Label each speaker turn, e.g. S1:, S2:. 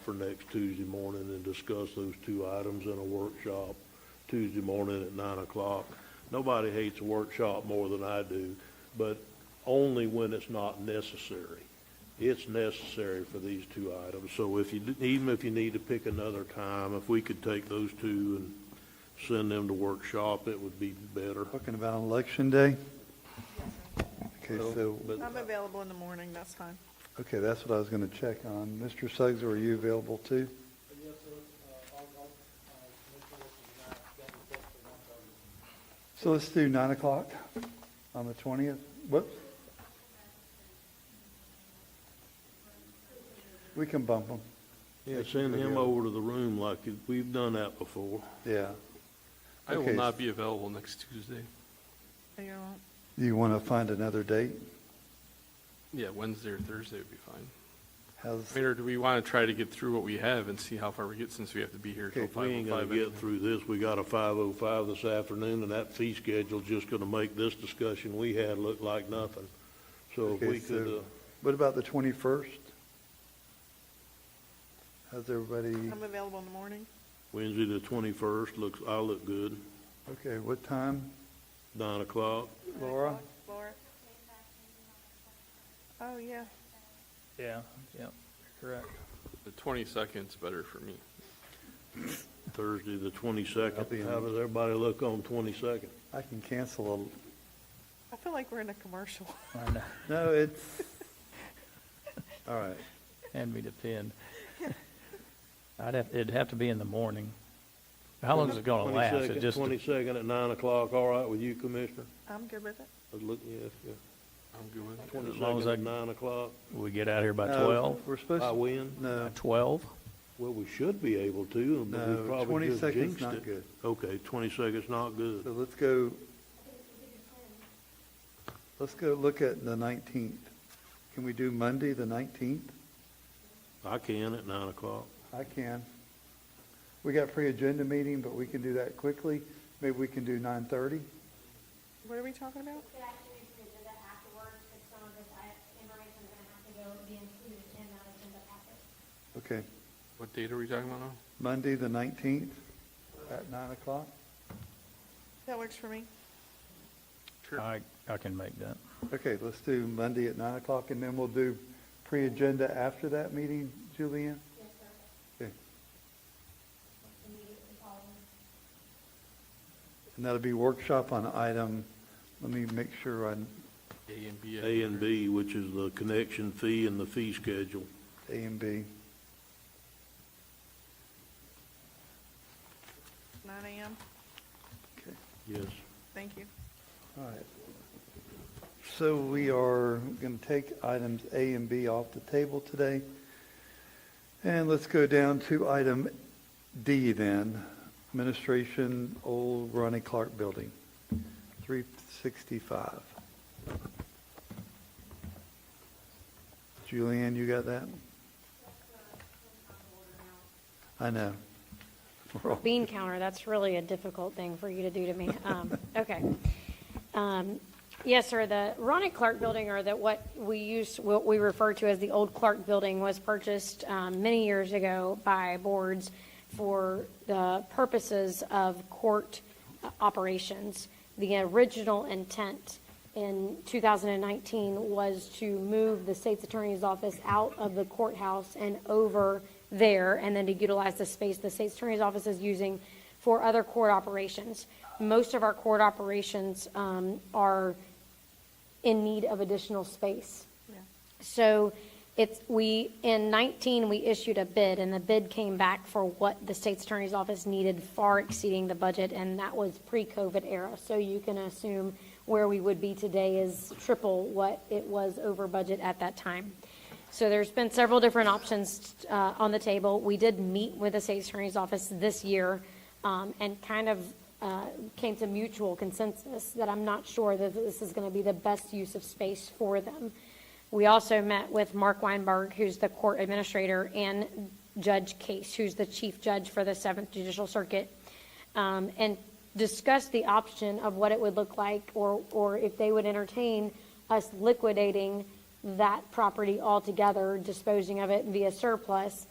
S1: for next Tuesday morning and discuss those two items in a workshop Tuesday morning at nine o'clock. Nobody hates a workshop more than I do, but only when it's not necessary. It's necessary for these two items, so if you, even if you need to pick another time, if we could take those two and send them to workshop, it would be better.
S2: Talking about election day? Okay, so,
S1: But-
S3: I'm available in the morning, that's fine.
S2: okay, that's what I was going to check on. Mr. Suggs, are you available too?
S4: Yes, sir, uh, I'll, uh, I'll, uh, make sure this is not, that is set for one thirty.
S2: So let's do 9 o'clock on the 20th. Whoops. We can bump them,
S1: Yeah, send him over to the room like we've done that before.
S2: yeah.
S5: I
S2: Okay.
S5: will not be available next Tuesday.
S3: Are you all-
S2: Do you want to find another date?
S5: Yeah, Wednesday or Thursday would be fine. I
S2: How's,
S5: mean, or do we want to try to get through what we have and see how far we get since we have to be here till
S1: If we
S5: five
S1: ain't
S5: oh
S1: gonna
S5: five?
S1: get through this, we got a five oh five this afternoon, and that fee schedule's just gonna make this discussion we had look like nothing. So if
S2: Okay,
S1: we could,
S2: so-
S1: uh,
S2: what about the 21st? How's everybody,
S3: I'm available in the morning.
S1: Wednesday the twenty-first, looks, I look good,
S2: okay, what time,
S1: nine o'clock.
S2: Laura?
S3: Laura? Oh, yeah.
S6: Yeah, yeah, correct.
S5: The twenty-second's better for me.
S1: Thursday the
S2: I'll be
S1: twenty-second.
S2: in.
S1: How does everybody look on twenty-second?
S2: I can cancel
S3: I feel like we're in a commercial.
S6: I know.
S2: a, no, it's, all right.
S6: Hand me the pen. I'd have, it'd have to be in the morning. How long is it gonna last? It just-
S1: Twenty-second at nine o'clock, all right with you, Commissioner?
S3: I'm good with it.
S1: I look, yeah, yeah.
S5: I'm good with it.
S6: long as
S1: Twenty-second at
S6: I-
S1: nine o'clock,
S6: we get out here by
S2: No,
S6: twelve?
S2: We're supposed
S1: I
S2: to,
S1: win?
S2: no,
S6: Twelve?
S1: Well, we should be able to, but we
S2: No,
S1: probably just
S2: 22nd's
S1: jinxed
S2: not
S1: it.
S2: good.
S1: Okay, twenty-second's not good.
S2: so let's go, let's go look at the 19th. Can we do Monday, the 19th?
S1: I can at nine o'clock.
S2: I can. We got pre-agenda meeting, but we can do that quickly. Maybe we can do 9:30?
S3: What are we talking about?
S7: could actually revisit that afterwards, because some of this I- information is going to have to go be included in that agenda packet.
S2: Okay,
S5: What date are we talking about now?
S2: Monday, the 19th, at 9 o'clock?
S3: That works for me.
S5: Sure.
S6: I, I can make that.
S2: Okay, let's do Monday at 9 o'clock, and then we'll do pre-agenda after that meeting, Julianne? Okay. And that'll be workshop on item, let me make sure on
S5: A and B. I
S1: A
S5: think,
S1: and
S5: or-
S1: B, which is the connection fee and the fee schedule.
S2: A and B.
S3: Nine AM.
S2: Okay.
S1: Yes.
S3: Thank you.
S2: All right. So we are going to take items A and B off the table today. And let's go down to item D then, Administration Old Ronnie Clark Building, 365. Julianne, you got that? I know. We're all-
S7: Bean counter, that's really a difficult thing for you to do to me. Um, Okay. Um, Yes, sir, the Ronnie Clark Building, or that what we use, what we refer to as the old Clark Building, was purchased um, many years ago by boards for the purposes of court uh, operations. The original intent in 2019 was to move the state's attorney's office out of the courthouse and over there, and then to utilize the space the state's attorney's office is using for other court operations. Most of our court operations um, are in need of additional space.
S3: Yeah.
S7: So it's, we, in 19, we issued a bid, and the bid came back for what the state's attorney's office needed, far exceeding the budget, and that was pre-COVID era. So you can assume where we would be today is triple what it was over budget at that time. So there's been several different options uh, on the table. We did meet with the state's attorney's office this year um, and kind of uh, came to mutual consensus that I'm not sure that this is going to be the best use of space for them. We also met with Mark Weinberg, who's the court administrator, and Judge Case, who's the chief judge for the Seventh Judicial Circuit, um, and discussed the option of what it would look like, or, or if they would entertain us liquidating that property altogether, disposing of it via surplus,